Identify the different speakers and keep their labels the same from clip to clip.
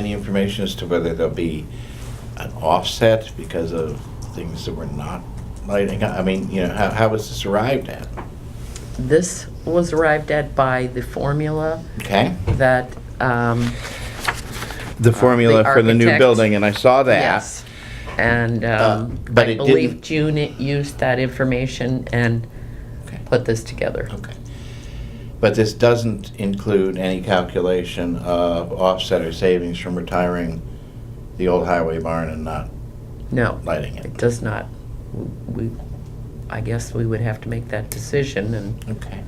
Speaker 1: Any information as to whether there'll be an offset because of things that were not lighting? I mean, you know, how, how was this arrived at?
Speaker 2: This was arrived at by the formula
Speaker 1: Okay?
Speaker 2: that, um,
Speaker 1: The formula for the new
Speaker 2: Uh, architect-
Speaker 1: building, and I saw that.
Speaker 2: yes. And,
Speaker 1: Uh,
Speaker 2: um,
Speaker 1: but
Speaker 2: I
Speaker 1: it
Speaker 2: believe
Speaker 1: didn't-
Speaker 2: June it used that information and
Speaker 1: Okay. Oh.
Speaker 2: put this together.
Speaker 1: Okay. But this doesn't include any calculation of offset or savings from retiring the old highway barn and not
Speaker 2: No,
Speaker 1: lighting it?
Speaker 2: it does not. We, I guess we would have to make that decision and,
Speaker 1: Okay.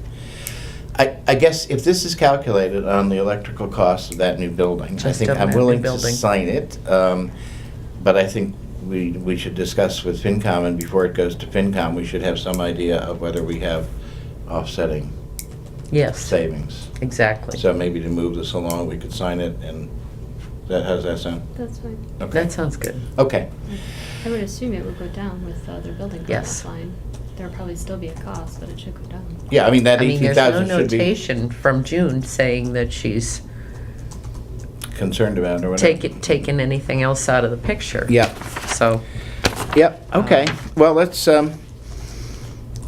Speaker 1: I, I guess if this is calculated on the electrical cost of that new building, I
Speaker 2: Just
Speaker 1: think
Speaker 2: of
Speaker 1: I'm
Speaker 2: that new
Speaker 1: willing to
Speaker 2: building.
Speaker 1: sign it. um, But I think we, we should discuss with FinCom, and before it goes to FinCom, we should have some idea of whether we have offsetting
Speaker 2: yes,
Speaker 1: savings.
Speaker 2: exactly.
Speaker 1: So maybe to move this along, we could sign it, and that, how's that sound?
Speaker 3: That's fine.
Speaker 1: Okay.
Speaker 2: That sounds good.
Speaker 1: Okay,
Speaker 3: I would assume it would go down with the other building
Speaker 2: Yes.
Speaker 3: cost line. There'll probably still be a cost, but it should go down.
Speaker 1: yeah, I mean, that
Speaker 2: I mean,
Speaker 1: eighteen
Speaker 2: there's no
Speaker 1: thousand should be
Speaker 2: notation from June saying that she's
Speaker 1: concerned about or whatever.
Speaker 2: taken, taken anything else out of the picture.
Speaker 1: Yeah.
Speaker 2: So,
Speaker 1: Yep, okay.
Speaker 2: Um,
Speaker 1: Well, let's, um,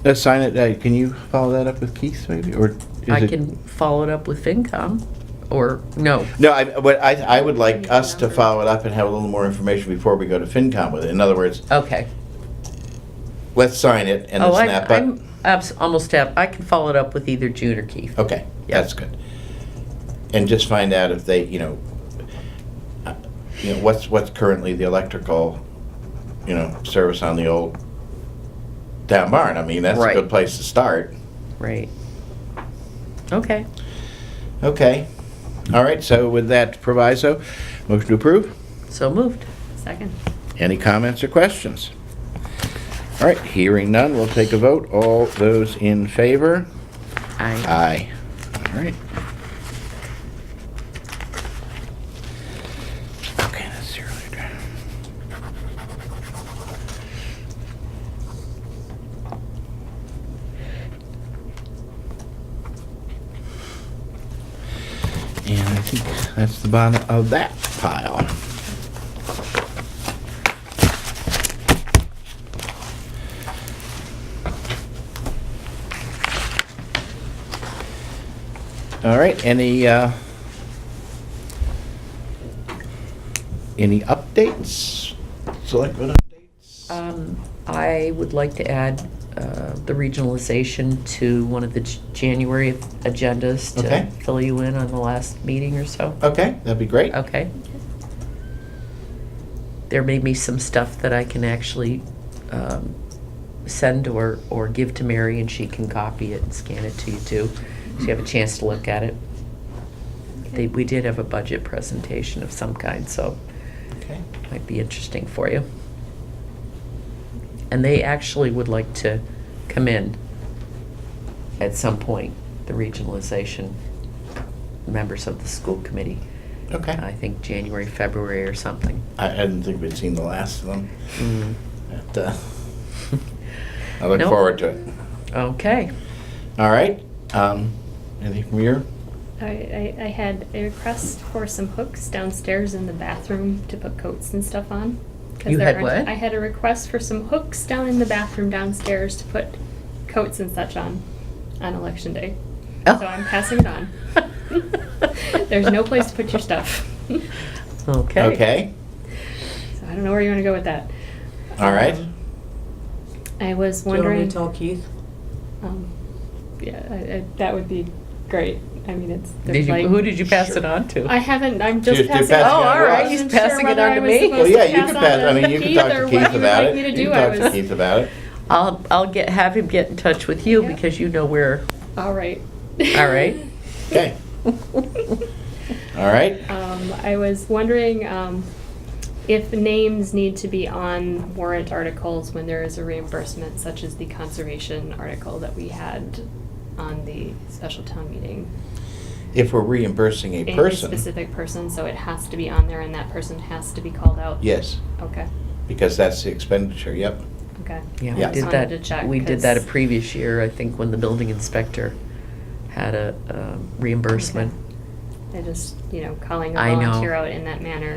Speaker 1: let's sign it. Uh, Can you follow that up with Keith maybe, or? is
Speaker 2: I
Speaker 1: it-
Speaker 2: can follow it up with FinCom, or, no,
Speaker 1: No, I, what I, I would like us to follow it up and have a little more information before we go to FinCom with it. In other words,
Speaker 2: okay.
Speaker 1: let's sign it and then
Speaker 2: Oh, I-
Speaker 1: snap up.
Speaker 2: I'm abs- almost, ab- I can follow it up with either June or Keith.
Speaker 1: Okay,
Speaker 2: Yeah.
Speaker 1: that's good. And just find out if they, you know, uh, you know, what's, what's currently the electrical, you know, service on the old town barn. I mean, that's a
Speaker 2: Right.
Speaker 1: good place to start.
Speaker 2: Right. Okay,
Speaker 1: Okay. All right, so with that proviso, motion to approve?
Speaker 2: so moved.
Speaker 3: Second.
Speaker 1: Any comments or questions? All right, hearing none, we'll take a vote. All those in favor?
Speaker 2: I,
Speaker 1: Aye. All right. Okay, that's zero. there. And I think that's the bottom of that pile. All right, any, uh, any updates? Selectmen updates?
Speaker 2: um, I would like to add, uh, the regionalization to one of the J- January agendas
Speaker 1: Okay. Oh.
Speaker 2: to fill you in on the last meeting or so.
Speaker 1: Okay, that'd be great.
Speaker 2: Okay. There may be some stuff that I can actually um, send or, or give to Mary, and she can copy it and scan it to you too, so you have a chance to look at it. They,
Speaker 3: Okay.
Speaker 2: we did have a budget presentation of some kind, so
Speaker 1: Okay.
Speaker 2: it might be interesting for you. And they actually would like to come in at some point, the regionalization members of the school committee. I
Speaker 1: Okay.
Speaker 2: think January, February or something.
Speaker 1: I I didn't think we'd seen the last of them.
Speaker 2: Mm.
Speaker 1: but, uh, I look
Speaker 2: Nope.
Speaker 1: forward to it.
Speaker 2: Okay.
Speaker 1: All right, um, anything from you?
Speaker 3: I, I, I had a request for some hooks downstairs in the bathroom to put coats and stuff on. 'cause
Speaker 2: You
Speaker 3: there
Speaker 2: had
Speaker 3: aren't-
Speaker 2: what?
Speaker 3: I had a request for some hooks down in the bathroom downstairs to put coats and such on, on election day.
Speaker 2: Oh.
Speaker 3: So I'm passing it on. There's no place to put your stuff.
Speaker 2: Okay.
Speaker 1: Okay,
Speaker 3: So I don't know where you want to go with that.
Speaker 1: all right.
Speaker 3: Um, I was
Speaker 4: Do you want me
Speaker 3: wondering.
Speaker 4: to tell Keith?
Speaker 3: um, yeah, I, I, that would be great. I mean, it's.
Speaker 2: Did
Speaker 3: there's
Speaker 2: you,
Speaker 3: like-
Speaker 2: who did you pass
Speaker 1: Sure.
Speaker 2: it on to?
Speaker 3: I haven't. I'm just
Speaker 1: You're- you're
Speaker 3: passing.
Speaker 1: passing
Speaker 3: it
Speaker 1: Oh,
Speaker 3: on.
Speaker 1: all right,
Speaker 3: I wasn't
Speaker 2: he's
Speaker 3: sure
Speaker 2: passing it
Speaker 3: whether
Speaker 2: on
Speaker 3: I
Speaker 2: to
Speaker 3: was
Speaker 2: me.
Speaker 3: supposed
Speaker 1: Well,
Speaker 2: Let's
Speaker 1: yeah,
Speaker 3: to
Speaker 1: you can
Speaker 3: on
Speaker 1: pass, I mean, you can talk
Speaker 3: Keith or
Speaker 1: to
Speaker 3: what
Speaker 1: Keith
Speaker 3: you would
Speaker 1: about
Speaker 3: like
Speaker 1: it.
Speaker 3: me to
Speaker 1: You
Speaker 3: do.
Speaker 1: can
Speaker 3: I
Speaker 1: talk to
Speaker 3: was-
Speaker 1: Keith about it.
Speaker 2: I'll I'll get have him get in touch with you
Speaker 3: Yeah.
Speaker 2: because you know where.
Speaker 3: All right.
Speaker 2: All right.
Speaker 1: Okay, all right,
Speaker 3: Um, I was wondering, um, if names need to be on warrant articles when there is a reimbursement, such as the conservation article that we had on the special town meeting.
Speaker 1: if we're reimbursing a person,
Speaker 3: Specific person, so it has to be on there and that person has to be called out?
Speaker 1: yes,
Speaker 3: Okay,
Speaker 1: because that's the expenditure, yep.
Speaker 3: okay.
Speaker 2: Yeah,
Speaker 1: Yeah.
Speaker 2: we did
Speaker 3: Wanted
Speaker 2: that.
Speaker 3: to check,
Speaker 2: we did that a
Speaker 3: 'cause-
Speaker 2: previous year, I think, when the building inspector had a um, reimbursement.
Speaker 3: I just, you know, calling a
Speaker 2: I know.
Speaker 3: volunteer out in that manner